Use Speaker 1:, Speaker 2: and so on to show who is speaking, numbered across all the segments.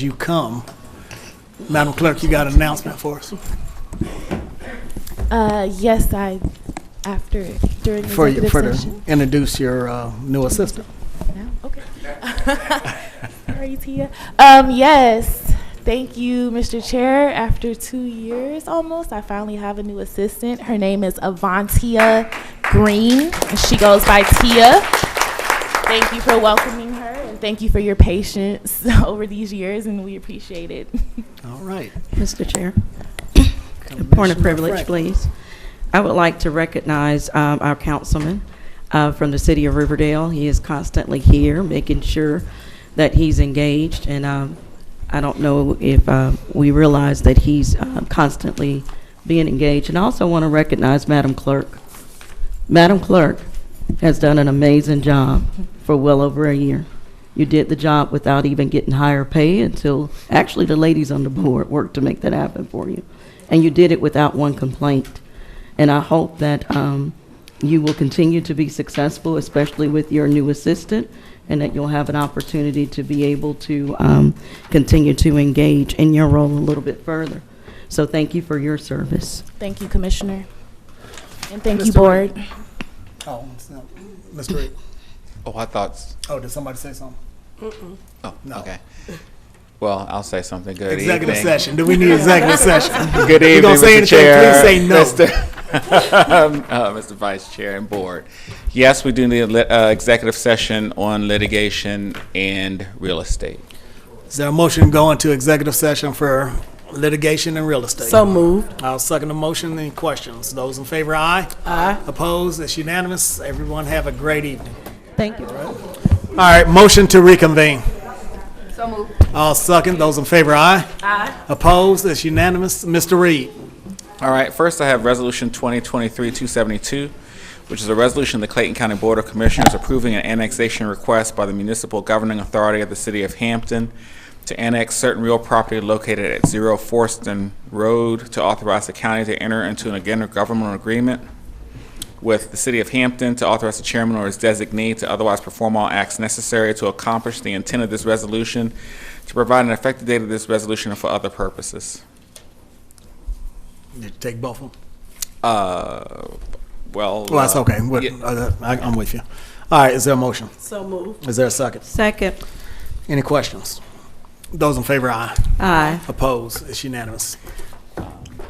Speaker 1: you come. Madam Clerk, you got an announcement for us?
Speaker 2: Uh, yes, I, after, during
Speaker 1: For you,
Speaker 2: executive
Speaker 1: for to
Speaker 2: session.
Speaker 1: introduce your uh, new assistant.
Speaker 2: No? Okay. Sorry, Tia. Um, yes, thank you, Mr. Chair. After two years almost, I finally have a new assistant. Her name is Avantia Green, and she goes by Tia. Thank you for welcoming her, and thank you for your patience over these years, and we appreciate it.
Speaker 1: All right.
Speaker 3: Mr. Chair, a point of
Speaker 1: Commissioner
Speaker 3: privilege,
Speaker 1: Frank.
Speaker 3: please. I would like to recognize um, our councilman uh, from the city of Riverdale. He is constantly here, making sure that he's engaged, and um, I don't know if uh, we realize that he's uh, constantly being engaged. And I also want to recognize Madam Clerk. Madam Clerk has done an amazing job for well over a year. You did the job without even getting higher pay until, actually, the ladies on the board worked to make that happen for you. And you did it without one complaint. And I hope that um, you will continue to be successful, especially with your new assistant, and that you'll have an opportunity to be able to um, continue to engage in your role a little bit further. So thank you for your service.
Speaker 2: Thank you, Commissioner. And thank you,
Speaker 1: Mr. Ray.
Speaker 2: Board.
Speaker 1: Oh, it's not- Mr. Reed.
Speaker 4: Oh, I thought.
Speaker 1: Oh, did somebody say something?
Speaker 4: Oh,
Speaker 1: No.
Speaker 4: okay. Well, I'll say something. Good
Speaker 1: Executive
Speaker 4: evening.
Speaker 1: session. Do we need executive session?
Speaker 4: Good
Speaker 1: You
Speaker 4: evening,
Speaker 1: gonna say
Speaker 4: Mr.
Speaker 1: anything,
Speaker 4: Chair.
Speaker 1: please say no.
Speaker 4: Mr. uh, Mr. Vice Chair and Board. Yes, we do need a lit- uh, executive session on litigation and real estate.
Speaker 1: Is there a motion to go into executive session for litigation and real estate?
Speaker 5: So moved.
Speaker 1: I'll second the motion. Any questions? Those in favor, aye. Aye. Opposed? It's unanimous. Everyone have a great evening.
Speaker 3: Thank you.
Speaker 1: All right, motion to reconvene. So moved. I'll second. Those in favor, aye. Aye. Opposed? It's unanimous. Mr. Reed.
Speaker 4: All right, first I have Resolution 2023-272, which is a resolution of the Clayton County Board of Commissioners approving an annexation request by the municipal governing authority of the city of Hampton to annex certain real property located at Zero Forston Road to authorize the county to enter into an intergovernmental agreement with the city of Hampton to authorize the chairman or his designee to otherwise perform all acts necessary to accomplish the intent of this resolution, to provide an effective date of this resolution and for other purposes.
Speaker 1: Did you take both of them?
Speaker 4: Uh, well.
Speaker 1: Well, that's
Speaker 4: uh,
Speaker 1: okay. What-
Speaker 4: yeah.
Speaker 1: uh, I- I'm with you. All right, is there a motion?
Speaker 5: So moved.
Speaker 1: Is there a second?
Speaker 3: Second.
Speaker 1: Any questions? Those in favor, aye.
Speaker 3: Aye.
Speaker 1: Opposed? It's unanimous.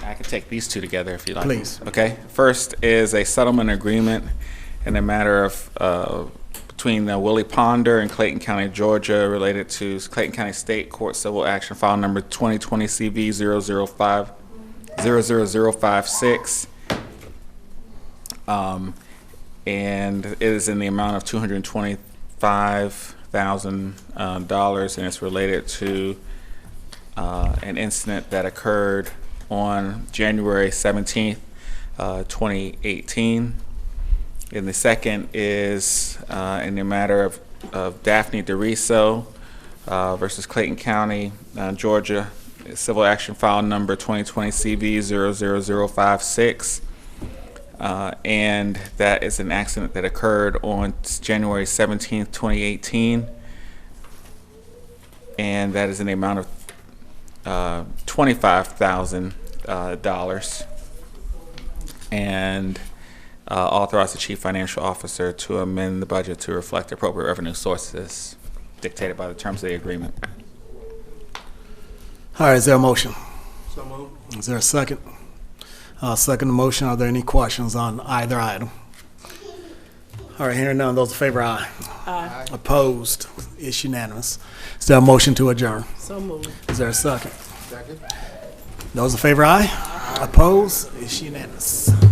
Speaker 4: I can take these two together if you like.
Speaker 1: Please.
Speaker 4: Okay. First is a settlement agreement in a matter of, uh, between uh, Willie Ponder and Clayton County, Georgia, related to Clayton County State Court Civil Action File Number 2020 CV 005, 00056. Um, and it is in the amount of $225,000, uh, dollars, and it's related to uh, an incident that occurred on January 17th, uh, 2018. And the second is uh, in the matter of, of Daphne DeRiso uh, versus Clayton County, uh, Georgia, civil action file number 2020 CV 00056. Uh, and that is an accident that occurred on January 17th, 2018. And that is in the amount of uh, $25,000. uh, dollars, And uh, authorize the chief financial officer to amend the budget to reflect appropriate revenue sources dictated by the terms of the agreement.
Speaker 1: All right, is there a motion? Is there a second? Uh, second the motion. Are there any questions on either item? All right, hearing none. Those in favor, aye. Aye. Opposed? It's unanimous. Is there a motion to adjourn?
Speaker 5: So moved.
Speaker 1: Is there a second? Second. Those in favor, aye. Opposed? It's unanimous.